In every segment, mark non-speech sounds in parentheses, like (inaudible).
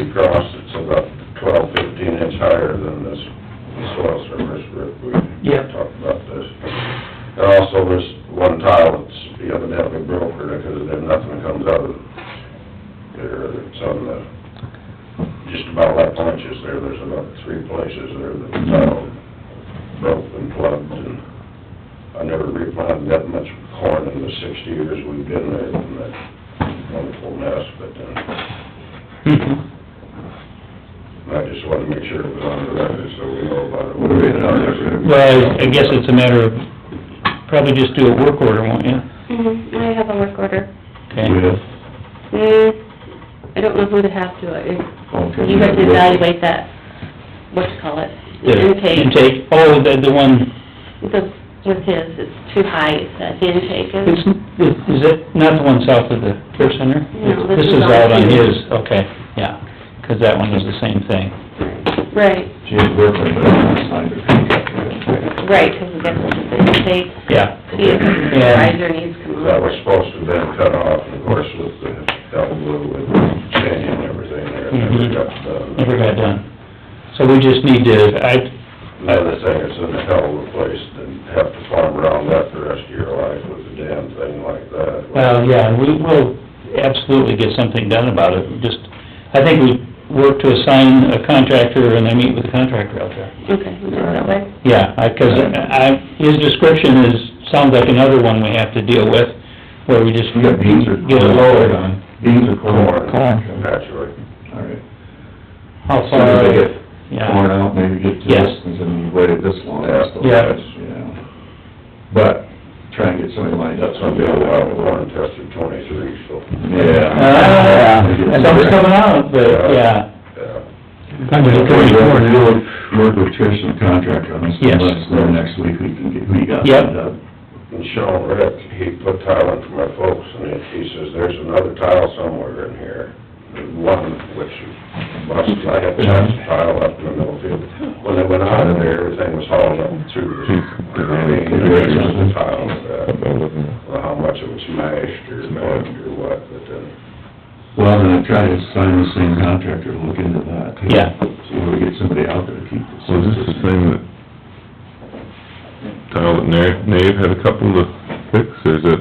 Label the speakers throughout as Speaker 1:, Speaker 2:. Speaker 1: across, it's about twelve, fifteen inch higher than this soil surface roof. We
Speaker 2: Yep.
Speaker 1: talked about this. And also, there's one tile that's evidently broken, because then nothing comes out of there, it's on the, just about like punches there, there's about three places there that the tile broke and plugged, and I never replanted that much corn in the sixty years we've been there, in that wonderful mess, but, uh,
Speaker 2: Mm-hmm.
Speaker 1: I just wanted to make sure it was on the record, so we know about it.
Speaker 3: We'll read it on the record.
Speaker 2: Well, I guess it's a matter of, probably just do a work order, won't you?
Speaker 4: Mhm, I have a work order.
Speaker 2: Okay.
Speaker 3: Yes.
Speaker 4: Mm, I don't know who to have to, I-
Speaker 3: Okay.
Speaker 4: you have to evaluate that, what to call it, the
Speaker 2: The
Speaker 4: intake.
Speaker 2: Intake, oh, the, the one,
Speaker 4: The, with his, it's too high, it's at the intake,
Speaker 2: it's,
Speaker 4: and
Speaker 2: is it not the one south of the care center?
Speaker 4: No, this is
Speaker 2: is
Speaker 4: on
Speaker 2: out on
Speaker 4: his.
Speaker 2: his, okay, yeah, 'cause that one was the same thing.
Speaker 4: right,
Speaker 3: She is working, but I'm not signed her.
Speaker 4: right, because that's the intake.
Speaker 2: Yeah.
Speaker 4: See if the supervisor needs to come
Speaker 1: That was
Speaker 4: over.
Speaker 1: supposed to have been cut off, and of course, with the elbow and chain and everything there, it never got uh, done.
Speaker 2: Mm-hmm. Never got done. So we just need to, I,
Speaker 1: Another thing, it's in a hell of a place to have to farm around that the rest of your life with a damn thing like that.
Speaker 2: well, yeah, we will absolutely get something done about it, just, I think we work to assign a contractor and I meet with the contractor out there.
Speaker 4: Okay, we'll do it that way.
Speaker 2: Yeah, I, 'cause I, his description is, sounds like another one we have to deal with, where we just
Speaker 3: We got beans or...
Speaker 2: get it lowered on.
Speaker 3: Beans or corn?
Speaker 2: Corn.
Speaker 1: Naturally.
Speaker 3: All right.
Speaker 2: How
Speaker 3: So if
Speaker 2: far?
Speaker 3: they get
Speaker 2: Yeah.
Speaker 3: corn out, maybe get to
Speaker 2: Yes.
Speaker 3: this, and then you waited this long.
Speaker 1: Yeah.
Speaker 3: so
Speaker 2: Yeah.
Speaker 3: that's, yeah. But, try and get somebody lined up,
Speaker 1: That's
Speaker 3: so
Speaker 1: gonna be a while, we're on tested twenty-three, so,
Speaker 3: Yeah.
Speaker 2: Ah, Something's coming out, but, yeah.
Speaker 1: yeah.
Speaker 3: Okay, well, We'll work with Trish and the contractor on this,
Speaker 2: Yes.
Speaker 3: and let us know next week, we can get, we got.
Speaker 2: Yep.
Speaker 3: it up.
Speaker 1: And Sean Rick, he put tile in for my folks, and he- he says, there's another tile somewhere in here. One which busted, I had chance to tile up in the middle field. When they went out of there, everything was hauled up through. I mean, there was a tile, uh, well, how much it was smashed or bugged or what, but then,
Speaker 3: Well, then I try to sign the same contractor, to look into that. too.
Speaker 2: Yeah.
Speaker 3: So we get somebody out there to keep this.
Speaker 5: Was this the same that, tile that Na- Nave had a couple to fix, or is it,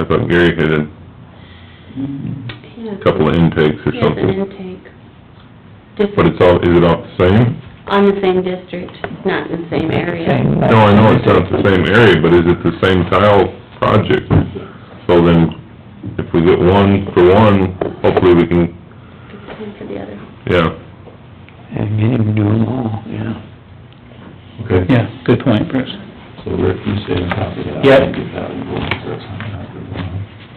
Speaker 5: I thought Gary had a
Speaker 4: Yeah.
Speaker 5: couple of intakes or
Speaker 4: He has an
Speaker 5: something?
Speaker 4: intake.
Speaker 5: But
Speaker 4: Different,
Speaker 5: it's all, is it all the same?
Speaker 4: on the same district, not in the same area.
Speaker 5: No, I know it's not the same area, but is it the same tile project? So then, if we get one for one, hopefully we can,
Speaker 4: It's one for the other.
Speaker 5: yeah.
Speaker 2: And get him to do them all, yeah.
Speaker 3: Okay.
Speaker 2: Yeah, good point, Bruce.
Speaker 3: So Rick, you stay on top of that.
Speaker 2: Yep.
Speaker 3: and Get that one going for us on that one.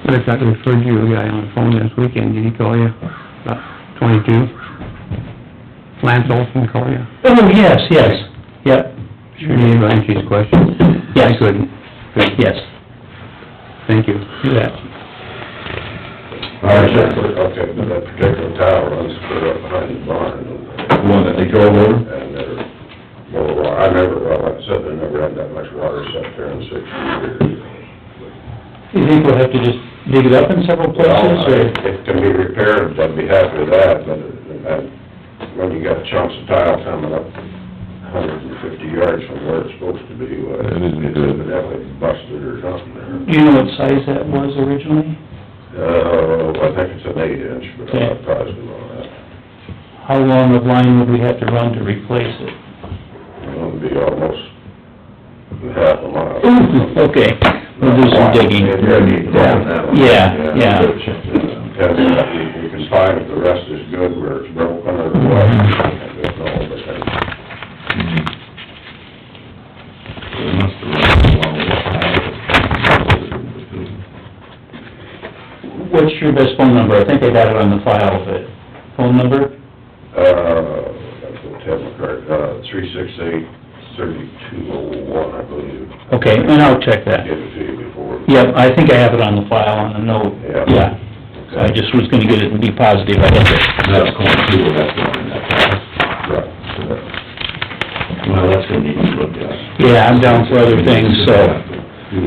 Speaker 6: I thought I referred you a guy on the phone this weekend, did he call you? About twenty-two? Lance Olson call you?
Speaker 2: Oh, yes, yes, yep,
Speaker 6: Sure you didn't answer his question?
Speaker 2: Yes.
Speaker 6: I couldn't. Good.
Speaker 2: yes,
Speaker 6: Thank you.
Speaker 2: do that.
Speaker 3: All right, sir.
Speaker 1: Okay, but that particular tile runs clear up behind the barn.
Speaker 3: The one that they drove over?
Speaker 1: And there, well, I never, well, like I said, I never had that much water set there in sixty years.
Speaker 2: You think we'll have to just dig it up in several places,
Speaker 1: Well,
Speaker 2: or?
Speaker 1: if it can be repaired, I'd be happy with that, but uh, when you got chunks of tile coming up hundred and fifty yards from where it's supposed to be, uh,
Speaker 5: That isn't
Speaker 1: it's
Speaker 5: good.
Speaker 1: evidently busted or something there.
Speaker 2: Do you know what size that was originally?
Speaker 1: Uh, I think it's an eight inch, but I'm not positive on that.
Speaker 2: How long of line would we have to run to replace it?
Speaker 1: It'll be almost half a mile.
Speaker 2: (laughs) Okay, we'll do some digging.
Speaker 1: Maybe I need to run that one.
Speaker 2: Yeah, yeah.
Speaker 3: Check that out.
Speaker 1: Because if we we can find if the rest is good, where it's broken or what, I don't know, but then...
Speaker 3: It must have run along with the house.
Speaker 2: What's your best phone number? I think I got it on the file, but, phone number?
Speaker 1: Uh, that's what Ted McCart, uh, three six eight thirty-two oh one, I believe.
Speaker 2: Okay, and I'll check that.
Speaker 1: Give it to you before.
Speaker 2: Yep, I think I have it on the file, on the note,
Speaker 1: Yeah.
Speaker 2: yeah. So I just was gonna get it and be positive, I had it.
Speaker 3: That's going through, that's going in that house.
Speaker 1: Right.
Speaker 3: Well, that's gonna need to be looked at.
Speaker 2: Yeah, I'm down for other things, so,
Speaker 3: Do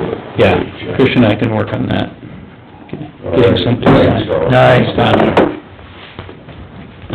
Speaker 3: it.
Speaker 2: yeah, Trish and I can work on that. Getting something.
Speaker 1: Alright, so-
Speaker 2: Nice, Tom.